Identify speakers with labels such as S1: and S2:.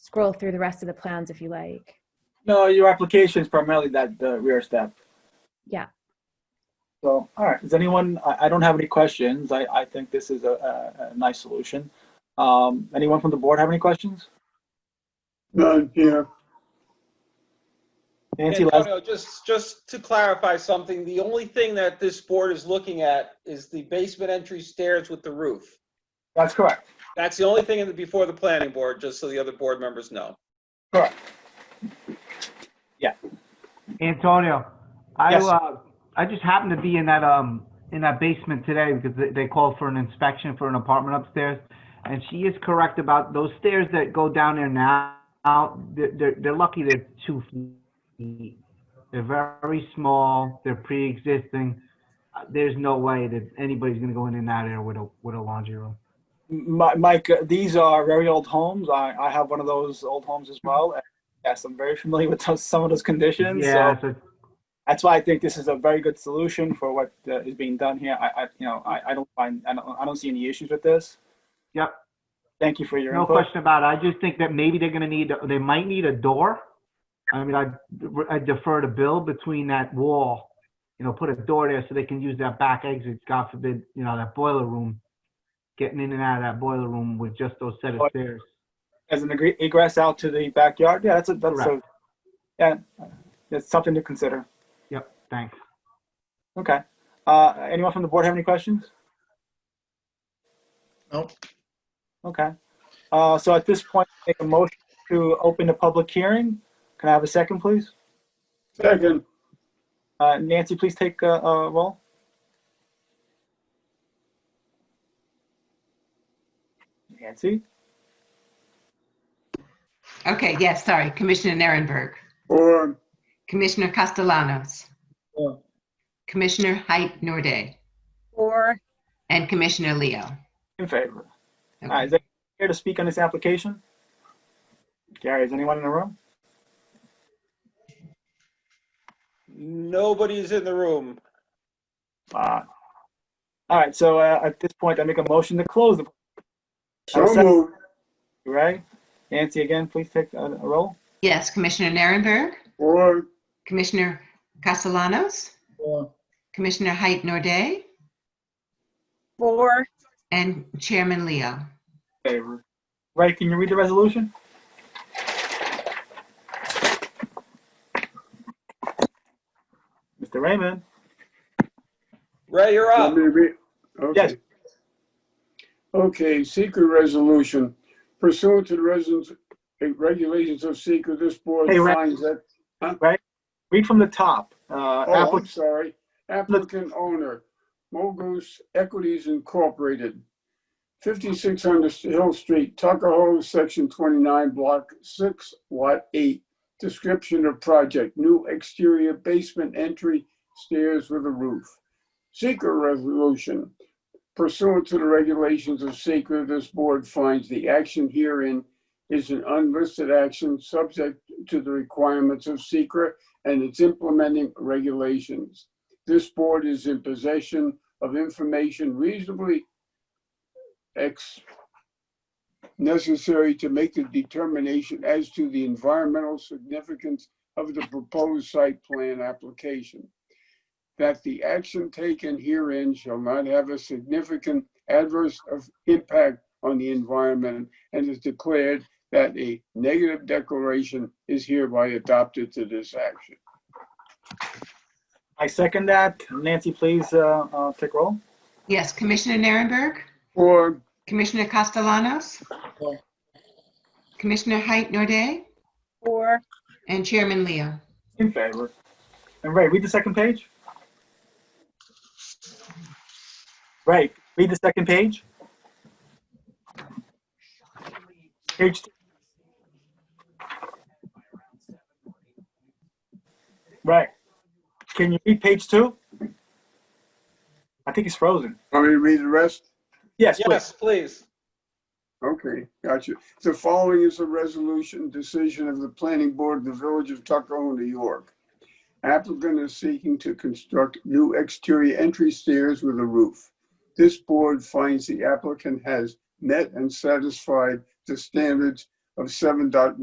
S1: scroll through the rest of the plans if you like.
S2: No, your application is primarily that the rear step.
S1: Yeah.
S2: So, all right, does anyone, I, I don't have any questions. I, I think this is a, a, a nice solution. Um, anyone from the board have any questions?
S3: None here.
S2: Nancy, last,
S4: Antonio, oh, just, just to clarify something, the only thing that this board is looking at is the basement entry stairs with the roof.
S2: that's correct.
S4: That's the only thing in the, before the planning board, just so the other board members know.
S2: Correct.
S5: Antonio, I,
S2: Yes.
S5: uh, I just happened to be in that, um, in that basement today because they, they called for an inspection for an apartment upstairs. And she is correct about those stairs that go down there now, they're, they're, they're lucky they're two feet. They're very small, they're pre-existing. Uh, There's no way that anybody's gonna go in and out of there with a, with a laundry room.
S2: Mi- Mike, uh, these are very old homes. I, I have one of those old homes as well. And Yes, I'm very familiar with those, some of those conditions. So
S5: Yeah, so
S2: that's why I think this is a very good solution for what uh, is being done here. I, I you know, I, I don't find, I don't, I don't see any issues with this.
S5: Yep.
S2: Thank you for your
S5: No
S2: input.
S5: question about it. I just think that maybe they're gonna need, they might need a door. I mean, I I defer to Bill between that wall, you know, put a door there so they can use that back exit, God forbid, you know, that boiler room. Getting in and out of that boiler room with just those set of stairs.
S2: As an egre- egress out to the backyard, yeah, that's a, that's a,
S5: Correct.
S2: yeah, it's something to consider.
S5: Yep, thanks.
S2: Okay. Uh, anyone from the board have any questions?
S3: Nope.
S2: Okay. Uh, so at this point, make a motion to open the public hearing. Can I have a second, please?
S3: Second,
S2: Uh, Nancy, please take a, a roll. Nancy,
S6: Okay, yes, sorry. Commissioner Narenberg,
S3: or
S6: Commissioner Castellanos,
S2: Four.
S6: Commissioner Height Norday,
S7: Or
S6: and Commissioner Leo.
S2: in favor. All
S6: Okay.
S2: right, is anyone here to speak on this application? Gary, is anyone in the room?
S4: Nobody's in the room.
S2: Uh, all right, so uh, at this point, I make a motion to close the,
S3: so
S2: Second.
S3: moved,
S2: right? Nancy, again, please take a, a roll.
S6: Yes, Commissioner Narenberg,
S3: or,
S6: Commissioner Castellanos,
S3: or,
S6: Commissioner Height Norday,
S7: or
S6: and Chairman Leo.
S2: Favor. Ray, can you read the resolution? Mr. Raymond?
S4: Ray, you're up.
S3: let me read- okay.
S2: Ah. Yes.
S3: Okay, secret resolution pursuant to the residents, eh, regulations of secret, this board
S2: Hey, Ray.
S3: finds that
S2: Read from the top. Uh,
S3: Oh, I'm
S2: applic-
S3: sorry. Applicant owner, Mogus Equities Incorporated, 5600 Hill Street, Tuckahoe, Section 29, Block 6, Lot 8. Description of project, new exterior basement entry, stairs with a roof. Seeker resolution. Pursuant to the regulations of seeker, this board finds the action herein is an unlisted action subject to the requirements of seeker and its implementing regulations. This board is in possession of information reasonably ex- necessary to make the determination as to the environmental significance of the proposed site plan application. That the action taken herein shall not have a significant adverse of impact on the environment and is declared that a negative declaration is hereby adopted to this action.
S2: I second that. Nancy, please, uh, uh, take roll.
S6: Yes, Commissioner Narenberg,
S3: Or,
S6: Commissioner Castellanos, Commissioner Height Norday,
S7: or
S6: and Chairman Leo.
S2: In favor. And Ray, read the second page. Ray, read the second page. Page. two. Ray, can you read page two? I think he's frozen.
S3: want me to read oh, the rest?
S2: Yes, please.
S4: Yes, please.
S3: Okay, gotcha. The following is a resolution decision of the planning board of the village of Tuckahoe, New York. Applicant is seeking to construct new exterior entry stairs with a roof. This board finds the applicant has met and satisfied the standards of 7.1